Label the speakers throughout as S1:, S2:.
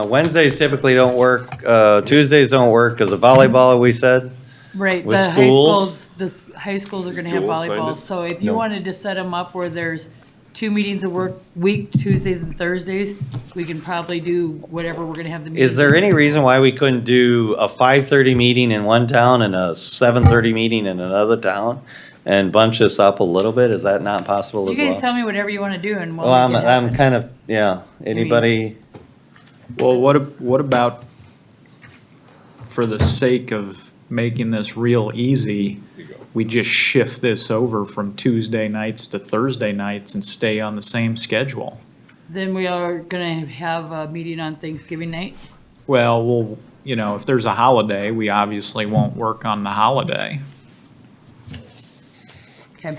S1: Uh, Wednesdays typically don't work, uh, Tuesdays don't work because of volleyball, we said.
S2: Right,
S1: With
S2: the high
S1: schools?
S2: schools, the s- high schools are gonna have
S3: Joel signed
S2: volleyball,
S3: it?
S2: so if you
S1: No.
S2: wanted to set them up where there's two meetings a work, week, Tuesdays and Thursdays, we can probably do whatever we're gonna have the meeting.
S1: Is there any reason why we couldn't do a five-thirty meeting in one town and a seven-thirty meeting in another town? And bunch this up a little bit? Is that not possible
S2: You
S1: as
S2: guys
S1: well?
S2: tell me whatever you wanna do and we'll
S1: Well, I'm,
S2: make it
S1: I'm
S2: happen.
S1: kind of, yeah, anybody,
S4: Well, what, ab- what about, for the sake of making this real easy, we just shift this over from Tuesday nights to Thursday nights and stay on the same schedule?
S2: Then we are gonna have a meeting on Thanksgiving night,
S4: Well, we'll, you know, if there's a holiday, we obviously won't work on the holiday.
S2: okay?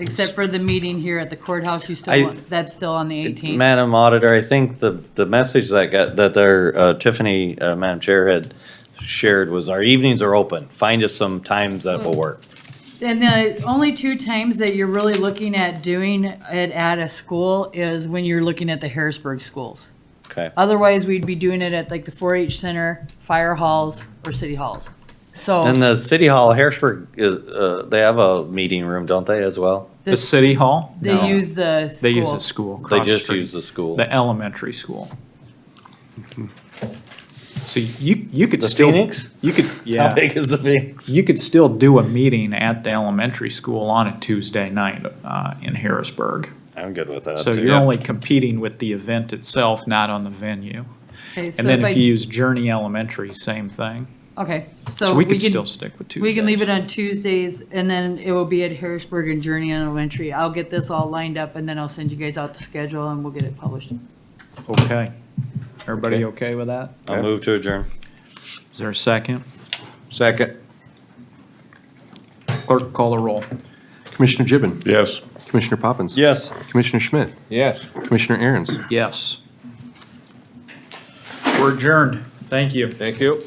S2: Except for the meeting here at the courthouse, you
S1: I-
S2: still want, that's still on the eighteenth.
S1: Madam Auditor, I think the, the message that got, that their, uh, Tiffany, uh, Madam Chair had shared was our evenings are open. Find us some times that
S2: Hmm.
S1: will work.
S2: And the only two times that you're really looking at doing it at a school is when you're looking at the Harrisburg schools.
S1: Okay,
S2: Otherwise, we'd be doing it at like the 4-H center, fire halls, or city halls. So
S1: and the City Hall, Harrisburg is, uh, they have a meeting room, don't they, as well?
S4: The
S2: the-
S4: city hall? No.
S2: they use the
S4: They use
S2: school.
S4: a school.
S1: They
S4: across the
S1: just
S4: street.
S1: use the school. Mm-hmm.
S4: The elementary school. So you, you could
S1: The
S4: still.
S1: Phoenix?
S4: You could, yeah.
S1: How big is the Phoenix?
S4: You could still do a meeting at the elementary school on a Tuesday night uh, in Harrisburg.
S1: I'm good with that.
S4: So
S1: too.
S4: you're only competing with the event itself, not on the venue.
S2: Okay, so
S4: And then
S2: if
S4: if
S2: I-
S4: you use Journey Elementary, same thing.
S2: Okay, so
S4: So we could
S2: can,
S4: still stick with Tuesdays.
S2: we can leave it on Tuesdays, and then it will be at Harrisburg and Journey Elementary. I'll get this all lined up, and then I'll send you guys out the schedule, and we'll get it published.
S4: Okay. Everybody okay with that?
S1: I'll move to adjourn.
S4: Is there a second?
S3: Second.
S4: Clerk, call the roll.
S5: Commissioner Gibbon.
S3: Yes.
S5: Commissioner Poppins.
S1: Yes.
S5: Commissioner Schmidt.
S3: Yes.
S5: Commissioner Aaron's.
S4: Yes. We're adjourned. Thank you.
S3: Thank you.